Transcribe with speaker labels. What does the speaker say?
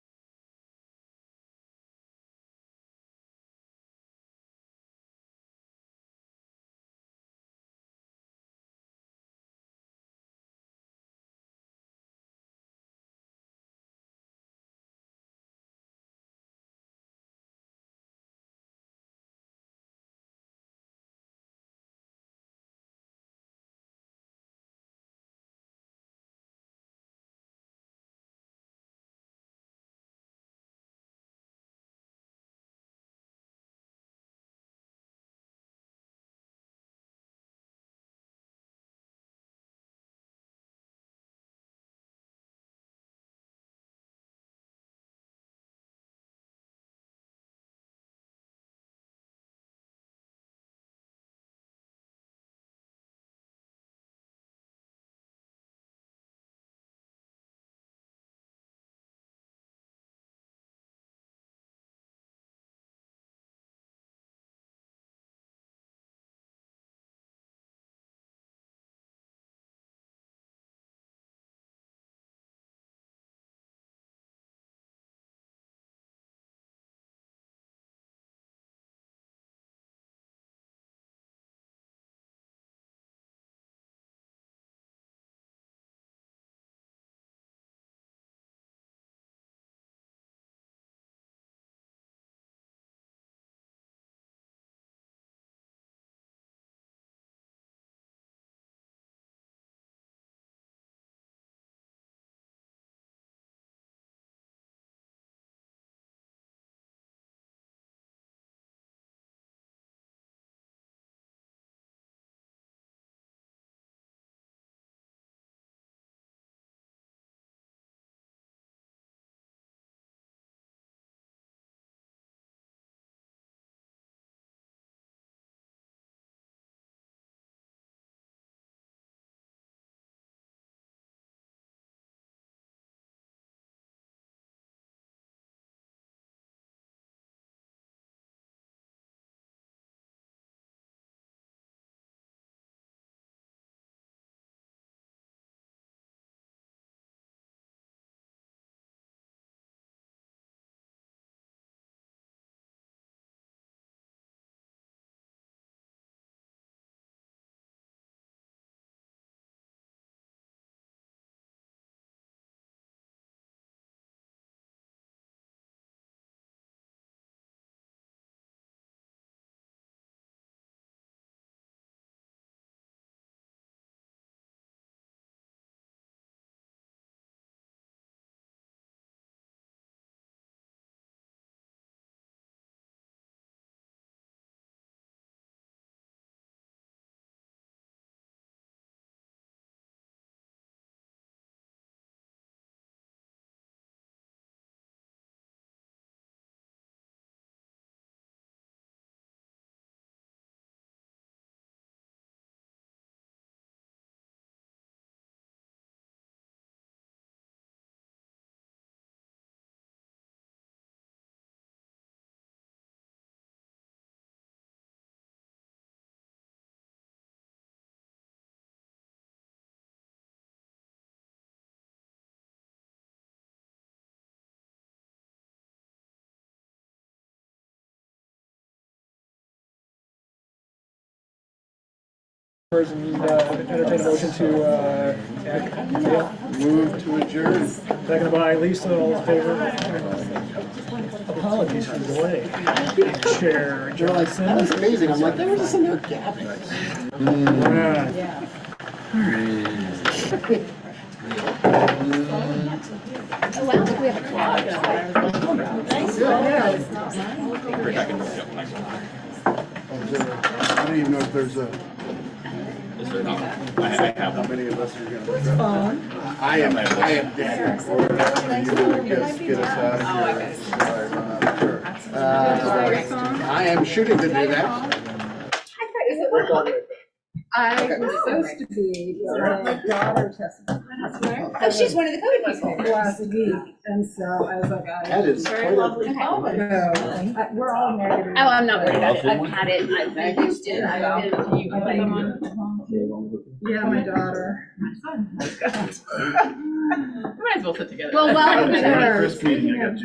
Speaker 1: And uh, entertain a motion to uh, act. Dale?
Speaker 2: Move to adjourn.
Speaker 1: Second by Lisa, all in favor? Apologies for the delay. Chair
Speaker 2: They're like, that
Speaker 1: Johnson.
Speaker 2: was amazing. I'm like, there was just in there gabbing.
Speaker 1: Yeah.
Speaker 3: Oh, wow, we have a clock. Nice.
Speaker 2: I don't even know if there's a. Is there not? I have. How many of us are gonna? It's I am, I am dead. Or after you would just get us out of here. Sorry, I'm not Oh, sure. Uh, I am shooting to do that.
Speaker 4: I was supposed to be, but my daughter tested
Speaker 3: Oh, she's one of the code people.
Speaker 4: last week, and so I was like, I,
Speaker 2: That is. quite a-
Speaker 4: no, I- we're all negative.
Speaker 3: Oh, I'm not worried about it. I've had it. I've I've used it. I've been.
Speaker 4: I think- Yeah, my daughter.
Speaker 5: Might as well sit together.
Speaker 3: Well, welcome to
Speaker 2: When I
Speaker 3: her.
Speaker 2: first meeting, I got